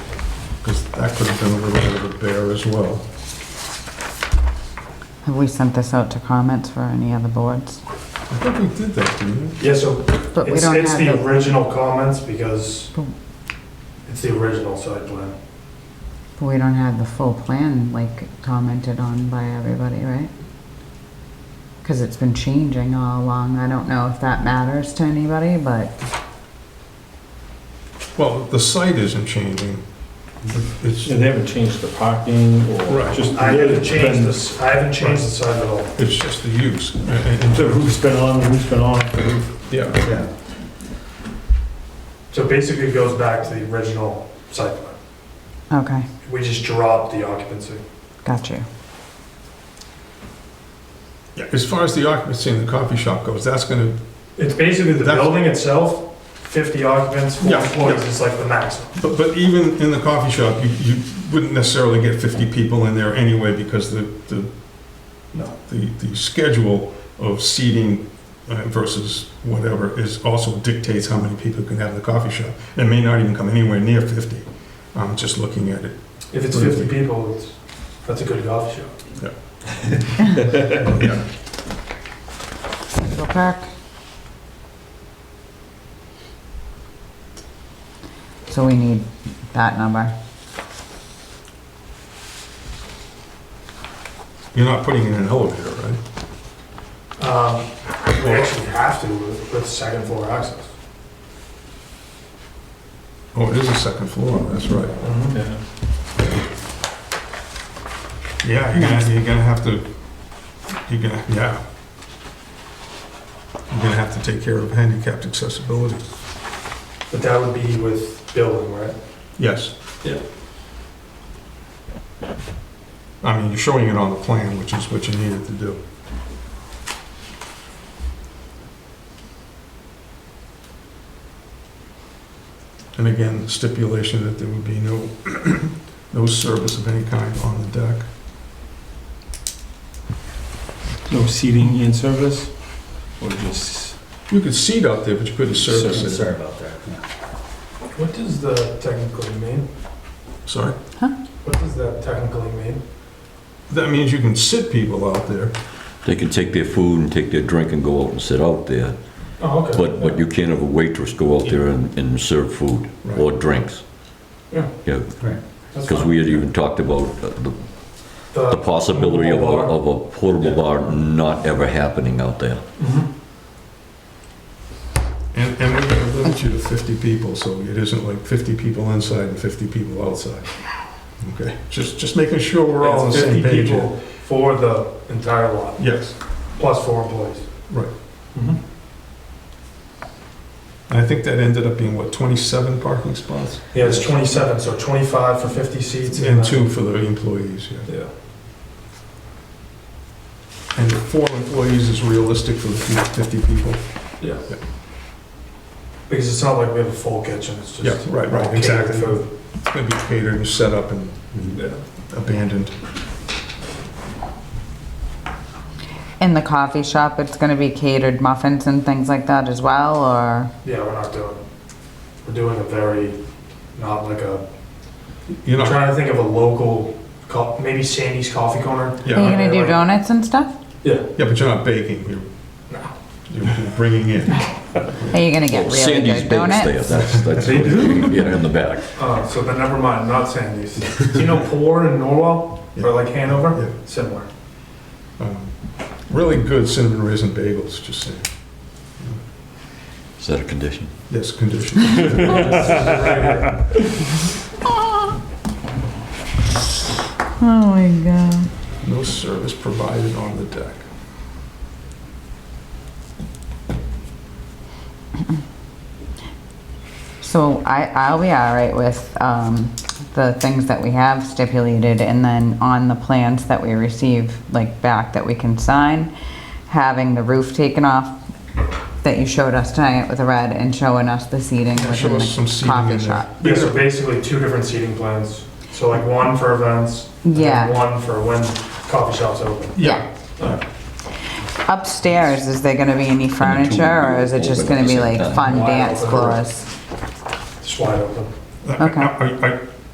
That could have been a little bit of a bear as well. Have we sent this out to comments for any other boards? I think we did that, didn't we? Yeah, so But we it's, don't it's have the the, original comments because Boom. it's the original site plan. but we don't have the full plan, like, commented on by everybody, right? Because it's been changing all along. I don't know if that matters to anybody, but Well, the site isn't changing. It's, Yeah, they haven't changed the parking or Right. just. I haven't it's changed been- this, I haven't changed the site at all. it's just the use. And- and- The roof's been on, the roof's been off. the roof- Yeah, Yeah. So basically it goes back to the original site plan. okay, We just dropped the occupancy. got you. Yeah, as far as the occupancy in the coffee shop goes, that's gonna, It's basically the That's- building itself, 50 occupants, four Yeah, employees yeah. is like the maximum. but, but even in the coffee shop, you, you wouldn't necessarily get 50 people in there anyway because the, the, No. the, the schedule of seating uh, versus whatever is also dictates how many people can have in the coffee shop. It may not even come anywhere near 50, I'm just looking at it. If it's 50 people, it's, that's a good golf shop. Yeah. Central Park. So we need that number. You're not putting in an elevator, right? Um, We actually have to with, with second floor access. Oh, it is a second floor, that's right. Yeah. Yeah, you're gonna, you're gonna have to, you're gonna, yeah. You're gonna have to take care of handicapped accessibility. But that would be with building, right? Yes. Yeah. I mean, you're showing it on the plan, which is what you needed to do. And again, stipulation that there would be no, no service of any kind on the deck. No seating in service or just. You could seat out there, but you couldn't service it. Sorry about that. What does the technically mean? Sorry? What does that technically mean? That means you can sit people out there. They can take their food and take their drink and go out and sit out there, Oh, okay. but, but you can't have a waitress go out there and, and serve food or drinks. Yeah. Yeah, That's because fine. we had even talked about uh, the, the The- possibility of a, of a portable Yeah. bar not ever happening out there. Mhm. And, and we're gonna limit you to 50 people, so it isn't like 50 people inside and 50 people outside. Okay, just, just making sure we're all on the It's same 50 page. here. people for the entire lot, Yes, plus four employees. Right. Mhm. and I think that ended up being, what, 27 parking spots? Yeah, it's 27, so 25 for 50 seats. And then- two for the employees, yeah. Yeah. And four employees is realistic for the 50 people. Yeah. Yeah. Because it's not like we have a full kitchen, it's just. Yeah, right, right, catered exactly. It's food. gonna be catered and set up and abandoned. In the coffee shop, it's gonna be catered muffins and things like that as well, or? Yeah, we're not doing, we're doing a very, not like a, You're I'm not, trying to think of a local, co- maybe Sandy's Coffee Corner. Are you yeah, Yeah. gonna do donuts and stuff? Yeah. yeah, but you're not baking, you're, you're bringing in. Are you gonna get Well, really Sandy's good Bakes there, donuts? that's, that's, They yeah, in the back. Uh, so then never mind, not Sandy's. Do you know Poor in Norwell, or like Hanover? Yeah. Similar. Um, Really good cinnamon raisin bagels, just saying. Is that a condition? Yes, condition. Oh my god. No service provided on the deck. So I, I'll be all right with, um, the things that we have stipulated and then on the plans that we receive, like back that we can sign, having the roof taken off that you showed us tonight with the red and showing us the seating Show within us some the seating in coffee there. shop. Yeah, so basically two different seating plans. So like one for events, and then Yeah. one for when coffee shops open. Yeah, Upstairs, is there gonna be any furniture or is it just gonna be like fun Wow. dance floors? Just wide open. Are- are- are-